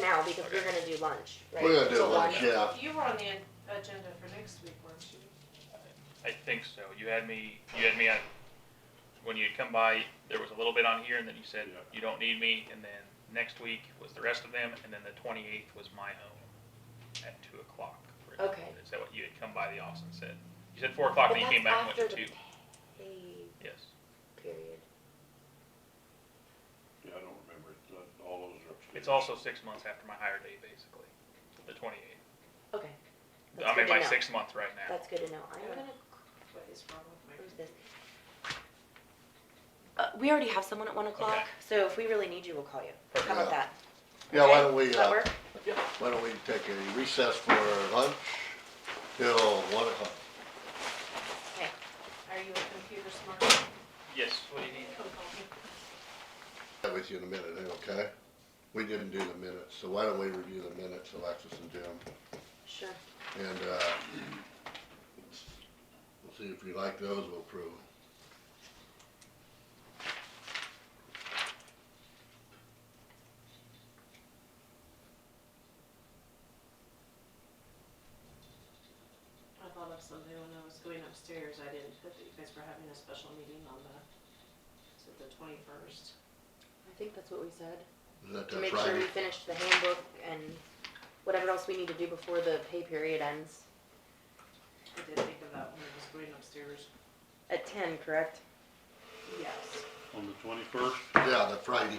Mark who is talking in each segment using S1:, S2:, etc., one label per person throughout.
S1: now because we're gonna do lunch, right?
S2: We're gonna do
S1: So
S2: lunch, yeah.
S3: You were on the an- agenda for next week, weren't you?
S4: I think so. You had me. You had me on. When you come by, there was a little bit on here, and then you said you don't need me. And then next week was the rest of them, and then the 28th was my own at two o'clock. for-
S1: Okay.
S4: Is that what you had come by the office and said? You said four o'clock,
S1: But
S4: and you came
S1: that's
S4: back and went
S1: after
S4: to
S1: the
S4: two.
S1: pay
S4: Yes.
S1: period.
S5: Yeah, I don't remember, it. Uh, all those are upstairs.
S4: It's also six months after my hire date, basically, the 28th.
S1: Okay. That's
S4: I'm
S1: good
S4: in
S1: to
S4: my
S1: know.
S4: sixth month right now.
S1: That's good to know. I'm
S3: Yeah.
S1: gonna
S3: What is wrong with my?
S1: close this. Uh, we already have someone at one o'clock,
S4: Okay.
S1: so if we really need you, we'll call you. How about
S2: Yeah.
S1: that?
S2: Yeah, why
S1: Okay?
S2: don't we,
S1: Does that
S2: uh,
S1: work?
S2: why don't we take a recess for lunch till one o'clock?
S1: Okay.
S3: Are you a computer smart?
S4: Yes. What do you need?
S3: Come call me.
S2: That with you in a minute, eh, okay? We didn't do the minutes, so why don't we review the minutes, Alexis and Jim?
S1: Sure.
S2: And, uh, we'll see if we like those, we'll approve.
S3: I thought of something when I was going upstairs, I didn't put that you guys were having a special meeting on the, is it the twenty-first?
S1: I think that's what we said.
S2: Is that
S1: To
S2: that
S1: make sure we
S2: Friday?
S1: finish the handbook and whatever else we need to do before the pay period ends.
S3: I did think of that when I was going upstairs.
S1: At ten, correct?
S3: Yes.
S5: On the twenty-first,
S2: Yeah, that Friday.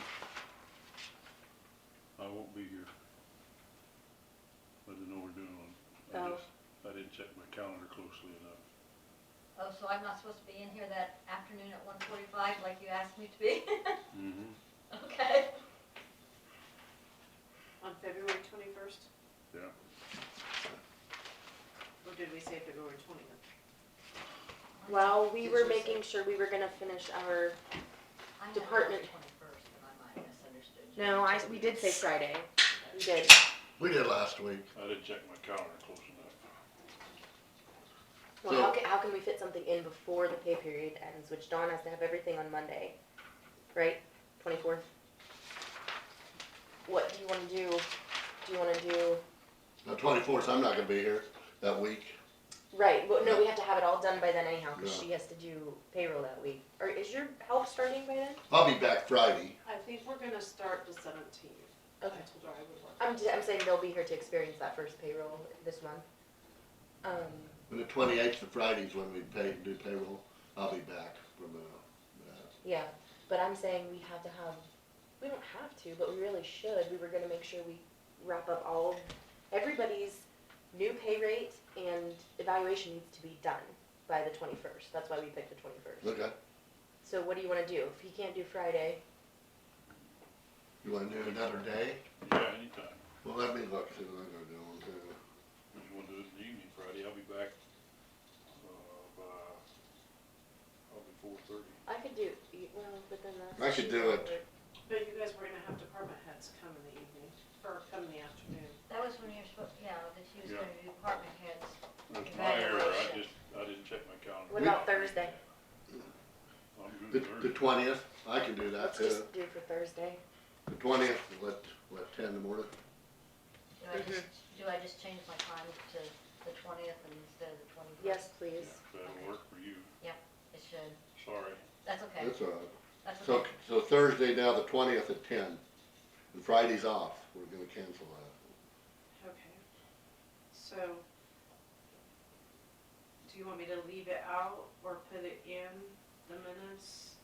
S5: I won't be here. I didn't know we're doing one. I
S1: Oh.
S5: just, I didn't check my calendar closely enough.
S6: Oh, so I'm not supposed to be in here that afternoon at one forty-five like you asked me to be?
S5: Mm-hmm.
S6: Okay.
S3: On February twenty-first,
S5: Yeah,
S3: or did we say February twentieth?
S1: Well, we
S3: Did
S1: were
S3: you say-
S1: making sure we were gonna finish our,
S6: I had
S1: Department.
S6: Twenty-first, and I might have misunderstood you.
S1: no, I, we did say Friday. We did.
S2: We did last week.
S5: I didn't check my calendar close enough.
S1: Well, how
S2: So-
S1: can, how can we fit something in before the pay period ends, which Dawn has to have everything on Monday, right? Twenty-fourth? What do you wanna do? Do you wanna do,
S2: The twenty-fourth, I'm not gonna be here that week.
S1: right, well, no, we have to have it all done by then anyhow, cause
S2: Yeah.
S1: she has to do payroll that week. Or is your help starting by then?
S2: I'll be back Friday.
S3: I think we're gonna start the seventeenth. I told her I would work.
S1: I'm, ju- I'm saying they'll be here to experience that first payroll this month. Um,
S2: And the twenty-eighth, the Friday's when we pay, do payroll. I'll be back from, uh, that.
S1: yeah, but I'm saying we have to have, we don't have to, but we really should, we were gonna make sure we wrap up all, of- everybody's new pay rate and evaluation needs to be done by the twenty-first, that's why we picked the twenty-first.
S2: Okay,
S1: So what do you wanna do? If he can't do Friday,
S2: you wanna do another day?
S5: Yeah, anytime.
S2: Well, let me look, see what I'm gonna do on Tuesday.
S5: If you wanna do it in the evening Friday, I'll be back, uh, by, probably four-thirty.
S1: I could do, well, but then that's.
S2: I could do it.
S3: But you guys were gonna have department heads come in the evening, or come in the afternoon.
S6: That was when you were supposed, yeah, that she was
S5: Yeah.
S6: gonna do department heads.
S5: That's my error, I
S6: Evaluation.
S5: just, I didn't check my calendar.
S1: What about Thursday?
S5: I'm
S2: The, the
S5: good Thursday.
S2: twentieth, I can do
S1: Let's
S2: that too.
S1: just do it for Thursday.
S2: The twentieth, what, what, ten in the morning?
S6: Do I just,
S1: Mm-hmm.
S6: do I just change my time to the twentieth instead of the twenty-first?
S1: Yes,
S5: Yeah,
S1: please.
S5: if That'll work for you,
S6: It should.
S5: sorry.
S6: That's okay.
S2: That's all right.
S6: That's okay.
S2: So, so Thursday now, the twentieth at ten, and Friday's off. We're gonna cancel that.
S3: Okay, so, do you want me to leave it out or put it in the minutes?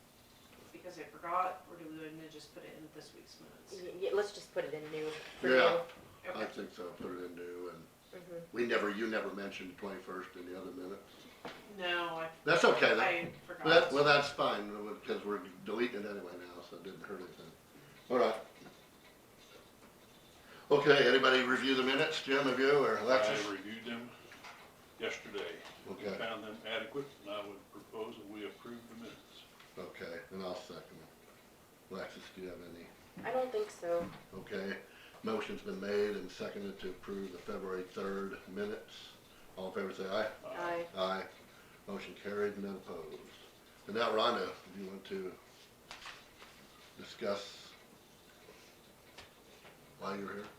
S3: Because I forgot, or do we want me to just put it in this week's minutes?
S1: Y- Yeah, let's just put it in new, for new.
S2: Yeah. I
S3: Okay,
S2: think so, put it in new, and
S1: Mhm.
S2: we never, you never mentioned the twenty-first in the other minute.
S3: no, I,
S2: That's okay, that,
S3: I
S2: that,
S3: forgot.
S2: well, that's fine, because we're deleting it anyway now, so it didn't hurt anything. All right. Okay, anybody review the minutes, Jim, have you, or
S5: I
S2: Alexis?
S5: reviewed them yesterday. We
S2: Okay.
S5: Found them adequate, and I would propose that we approve the minutes.
S2: Okay, and I'll second it. Alexis, do you have any?
S1: I don't think so.
S2: Okay, motion's been made and seconded to approve the February third minutes. All in favor, say aye.
S1: I,
S2: Aye. Motion carried, none opposed. And now Rhonda, if you want to discuss why you're here?